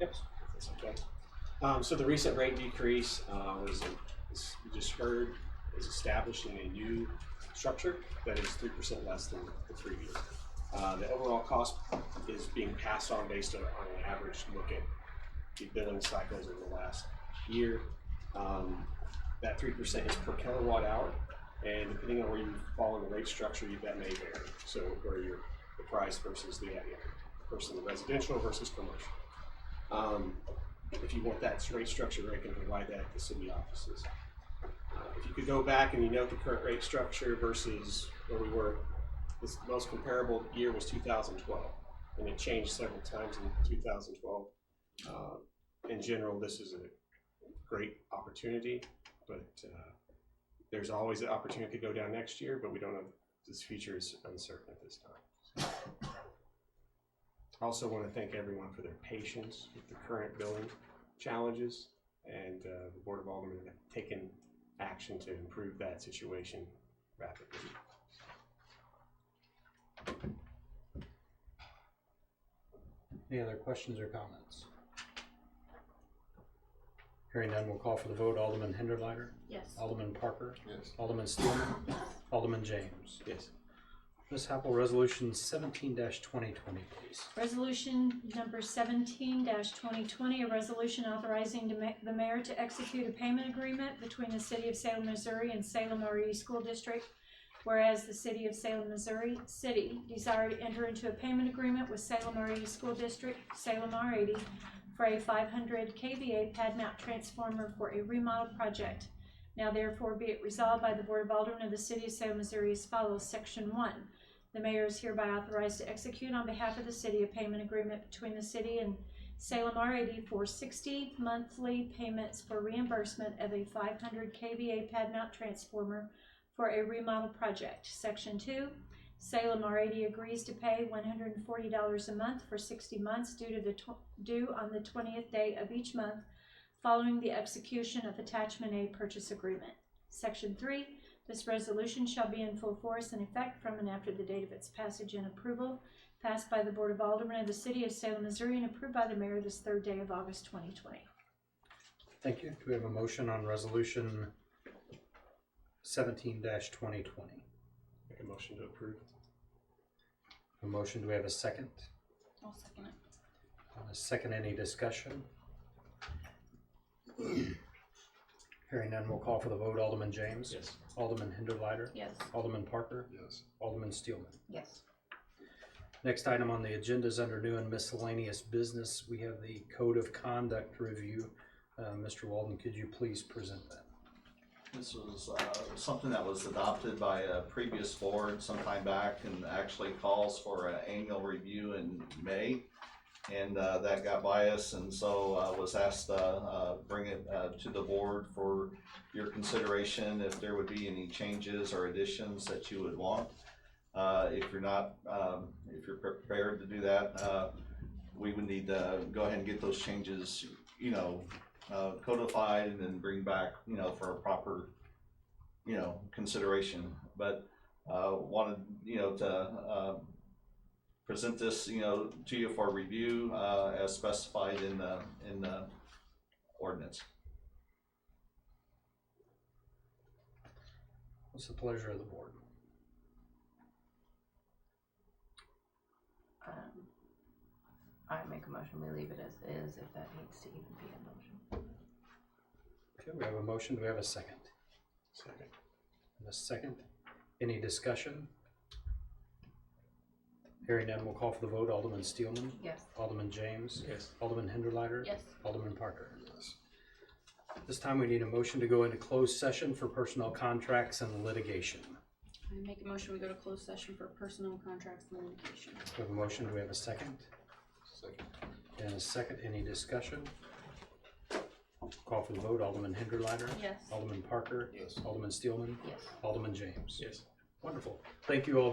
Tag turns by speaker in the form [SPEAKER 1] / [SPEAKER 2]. [SPEAKER 1] Yep, that's okay. Um, so the recent rate decrease, uh, was, as you just heard, is established in a new structure that is three percent less than the previous. Uh, the overall cost is being passed on based on, on an average look at the billing cycles over the last year. Um, that three percent is per kilowatt hour, and depending on where you fall in the rate structure, you- that may vary. So where you're the price versus the, versus the residential versus commercial. Um, if you want that rate structure, I can provide that at the city offices. Uh, If you could go back and you note the current rate structure versus where we were, this most comparable year was two thousand twelve. And it changed several times in two thousand twelve. Uh, In general, this is a great opportunity, but uh, there's always the opportunity to go down next year, but we don't know, this future is uncertain at this time. I Also want to thank everyone for their patience with the current billing challenges. And uh, the Board of Aldermen have taken action to improve that situation rapidly.
[SPEAKER 2] Any other questions or comments? Hearing none, we'll call for the vote. Alderman Hinderleiter,
[SPEAKER 3] Yes.
[SPEAKER 2] Alderman Parker,
[SPEAKER 4] Yes.
[SPEAKER 2] Alderman Steelman, Alderman James.
[SPEAKER 1] Yes.
[SPEAKER 2] Ms. Happel, Resolution seventeen twenty twenty, please.
[SPEAKER 3] Resolution number seventeen twenty twenty, a resolution authorizing to ma- the mayor to execute a payment agreement between the city of Salem, Missouri and Salem RE School District. Whereas the city of Salem, Missouri City desired to enter into a payment agreement with Salem RE School District, Salem R eighty, for a five hundred KVA pad mount transformer for a remodel project. Now therefore be it resolved by the Board of Aldermen of the city of Salem, Missouri as follows, section one. The mayor is hereby authorized to execute on behalf of the city a payment agreement between the city and Salem R80 for sixty monthly payments for reimbursement of a five hundred KVA pad mount transformer for a remodel project. Section two, Salem R80 agrees to pay one hundred and forty dollars a month for sixty months due to the tw- due on the twentieth day of each month following the execution of attachment A purchase agreement. Section three, this resolution shall be in full force and effect from and after the date of its passage and approval, passed by the Board of Aldermen of the City of Salem, Missouri, and approved by the mayor this third day of August twenty twenty.
[SPEAKER 2] Thank you. Do we have a motion on Resolution seventeen twenty twenty?
[SPEAKER 1] Make a motion to approve.
[SPEAKER 2] A motion, do we have a second?
[SPEAKER 3] I'll second it.
[SPEAKER 2] Uh, Second, any discussion? Hearing none, we'll call for the vote. Alderman James.
[SPEAKER 1] Yes.
[SPEAKER 2] Alderman Hinderleiter,
[SPEAKER 3] Yes.
[SPEAKER 2] Alderman Parker,
[SPEAKER 4] Yes.
[SPEAKER 2] Alderman Steelman.
[SPEAKER 3] Yes.
[SPEAKER 2] Next item on the agenda is under new and miscellaneous business. We have the Code of Conduct Review. Uh, Mr. Walden, could you please present that?
[SPEAKER 4] This was uh, something that was adopted by a previous board sometime back and actually calls for an annual review in May. And uh, that got by us and so I was asked to uh, bring it uh, to the board for your consideration if there would be any changes or additions that you would want. Uh, If you're not, um, if you're prepared to do that, uh, we would need to go ahead and get those changes, you know, uh, codified and then bring back, you know, for a proper, you know, consideration. But uh, wanted, you know, to uh, present this, you know, to you for review uh, as specified in the in the ordinance.
[SPEAKER 2] What's the pleasure of the board?
[SPEAKER 5] Um, I make a motion, we leave it as is, if that needs to even be a motion.
[SPEAKER 2] Okay, we have a motion. Do we have a second?
[SPEAKER 1] Second.
[SPEAKER 2] And a second. Any discussion? Hearing none, we'll call for the vote. Alderman Steelman,
[SPEAKER 5] Yes.
[SPEAKER 2] Alderman James,
[SPEAKER 1] Yes.
[SPEAKER 2] Alderman Hinderleiter.
[SPEAKER 5] Yes.
[SPEAKER 2] Alderman Parker. This time we need a motion to go into closed session for personnel contracts and litigation.
[SPEAKER 6] I make a motion, we go to closed session for personnel contracts and litigation.
[SPEAKER 2] We have a motion, do we have a second?
[SPEAKER 4] Second.
[SPEAKER 2] And a second, any discussion? Call for the vote, Alderman Hinderleiter.
[SPEAKER 6] Yes.
[SPEAKER 2] Alderman Parker.
[SPEAKER 4] Yes.
[SPEAKER 2] Alderman Steelman.
[SPEAKER 5] Yes.
[SPEAKER 2] Alderman James.
[SPEAKER 1] Yes.
[SPEAKER 2] Wonderful. Thank you all